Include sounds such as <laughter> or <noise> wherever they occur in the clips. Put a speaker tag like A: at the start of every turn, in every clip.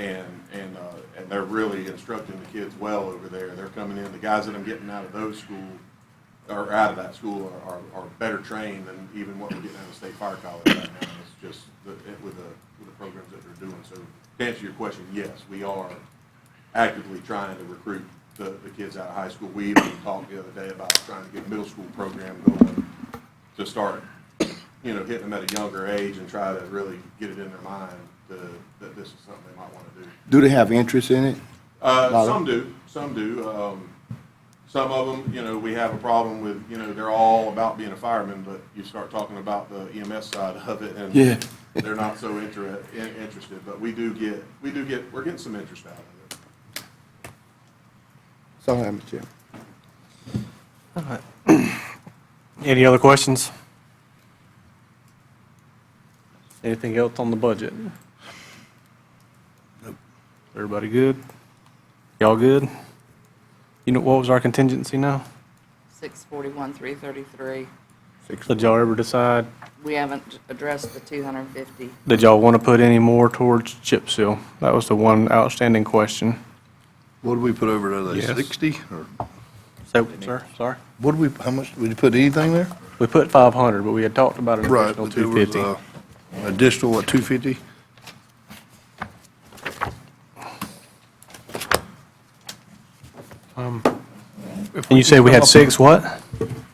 A: And, and, uh, and they're really instructing the kids well over there. They're coming in, the guys that I'm getting out of those school, or out of that school are, are, are better trained than even what we're getting out of State Fire College right now. It's just the, it- with the, with the programs that they're doing. So to answer your question, yes, we are actively trying to recruit the, the kids out of high school. We even talked the other day about trying to get a middle school program going to start, you know, hitting them at a younger age and try to really get it in their mind to, that this is something they might want to do.
B: Do they have interest in it?
A: Uh,
B: Not
A: some do, some do. Um, some of them, you know, we have a problem with, you know, they're all about being a fireman, but you start talking about the EMS side of it and
B: Yeah.
A: they're not so inter- in- interested, but we do get, we do get, we're getting some interest out of it.
B: So, Mr. Chairman.
C: Any other questions? Anything else on the budget? Everybody good? Y'all good? You know, what was our contingency now?
D: Six forty-one, three thirty-three.
C: Did y'all ever decide,
D: We haven't addressed the two hundred and fifty.
C: did y'all want to put any more towards chip seal? That was the one outstanding question.
E: What did we put over there, like
C: Yes.
E: 60? Or
C: So, sir, sorry.
E: what did we, how much, did you put anything there?
C: We put 500, but we had talked about an
E: Right,
C: additional
E: but there was
C: 250.
E: uh, additional, what, 250? uh,
C: And you said we had six what?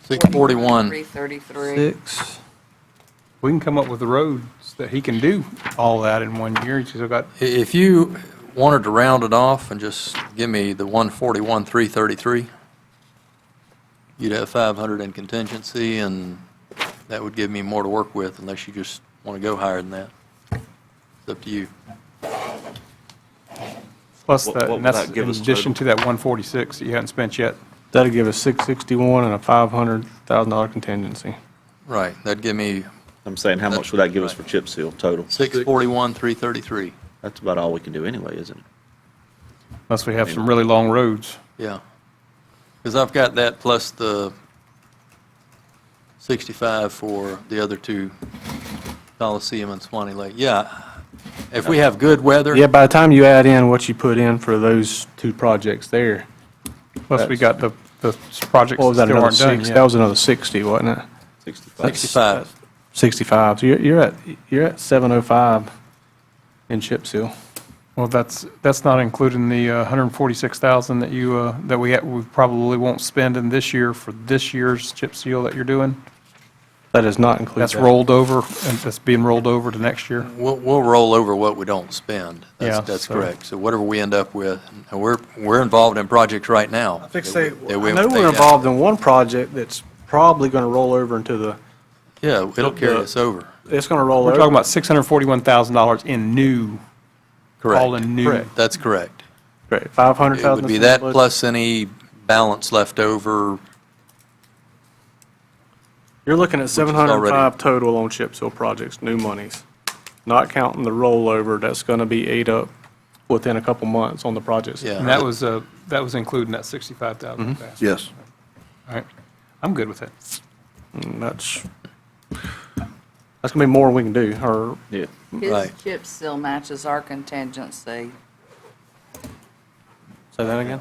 F: 641.
D: Three thirty-three.
C: Six.
G: We can come up with the roads that he can do all that in one year. He's still got,
F: I- If you wanted to round it off and just give me the 141, 333, you'd have 500 in contingency, and that would give me more to work with unless you just want to go higher than that. It's up to you.
G: plus that,
H: What- what
G: and
H: would
G: that's
H: that
G: in
H: give us
G: addition
H: total?
G: to that 146 that you hadn't spent yet.
C: That'd give us 661 and a $500,000 contingency.
F: Right, that'd give me
H: I'm saying, how much would that give us for chip seal total?
F: 641, 333,
H: That's about all we can do anyway, isn't it?
G: Unless we have some really long roads.
F: yeah. Because I've got that plus the 65 for the other two, Coliseum and Swanee Lake. Yeah, if we have good weather.
C: Yeah, by the time you add in what you put in for those two projects there,
G: Plus, we got the, the projects
C: what was
G: that
C: that,
G: still
C: another
G: aren't done
C: six? That
G: yet.
C: was another 60, wasn't it?
H: 65.
F: 65.
C: 65, so you're, you're at, you're at 705 in chip seal.
G: Well, that's, that's not including the uh, 146,000 that you, uh, that we, ha- we probably won't spend in this year for this year's chip seal that you're doing.
C: That does not include
G: That's
C: that.
G: rolled over, and that's being rolled over to next year.
F: We'll, we'll roll over what we don't spend. That's,
G: Yeah,
F: that's
G: so-
F: correct. So whatever we end up with, and we're, we're involved in projects right now. I
C: think so. I know we're involved in one project that's probably going to roll over into the,
F: Yeah, it'll carry us over.
C: it's going to roll over.
G: We're talking about $641,000 in new, all
F: Correct.
G: in new.
C: Correct.
F: That's correct.
C: Great,
F: It
C: 500,000.
F: would be
C: is in the
F: that
C: budget.
F: plus any balance left over.
C: You're looking at
F: is already-
C: 705 total on chip seal projects, new monies, not counting the rollover that's going to be ate up within a couple months on the projects.
F: Yeah.
G: And that was, uh, that was including that
F: Mm-hmm.
G: 65,000.
E: Yes.
G: All right. I'm good with it.
C: And That's, that's going to be more we can do, or
H: Yeah.
D: His
F: Right.
D: chip still matches our contingency.
C: Say that again?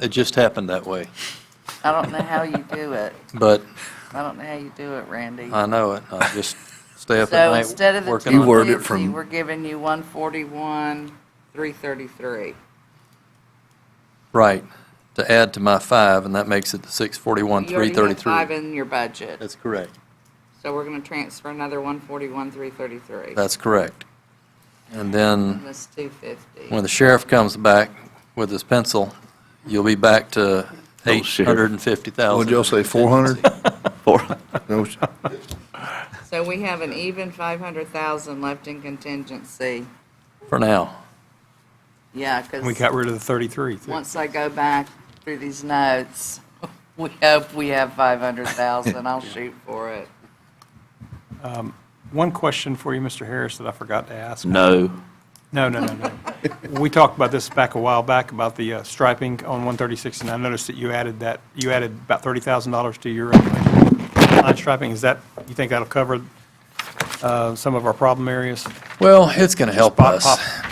F: It just happened that way.
D: I don't know how you do it.
F: But
D: I don't know how you do it, Randy.
F: I know it. I
D: <laughs>
F: just stay up at
D: So
F: night
D: instead of the
F: working on it.
E: You word it
D: two fifty,
E: from-
D: we're giving you one forty-one, three thirty-three.
F: Right, to add to my five, and that makes it the 641,
D: You already have five
F: 333.
D: in your budget,
F: That's correct.
D: so we're gonna transfer another one forty-one, three thirty-three.
F: That's correct. And then
D: That's two fifty.
F: when the sheriff comes back with his pencil, you'll be back to
H: Oh, sheriff.
F: 850,000.
E: What'd y'all say, 400?
H: <laughs>
E: No, s-
D: So we have an even five hundred thousand left in contingency.
F: For now.
D: Yeah,
G: And we
D: because
G: got rid of the 33. too.
D: once I go back through these notes, <laughs> we hope we have five hundred thousand. I'll shoot for it.
G: One question for you, Mr. Harris, that I forgot to ask.
H: No.
G: No,
F: <laughs>
G: no, no, no. We talked about this back a while back, about the uh, striping on 136, and I noticed that you added that, you added about $30,000 to your uh, line striping. Is that, you think that'll cover uh, some of our problem areas?
F: Well, it's going to help
G: Pop-
F: us.
G: pop-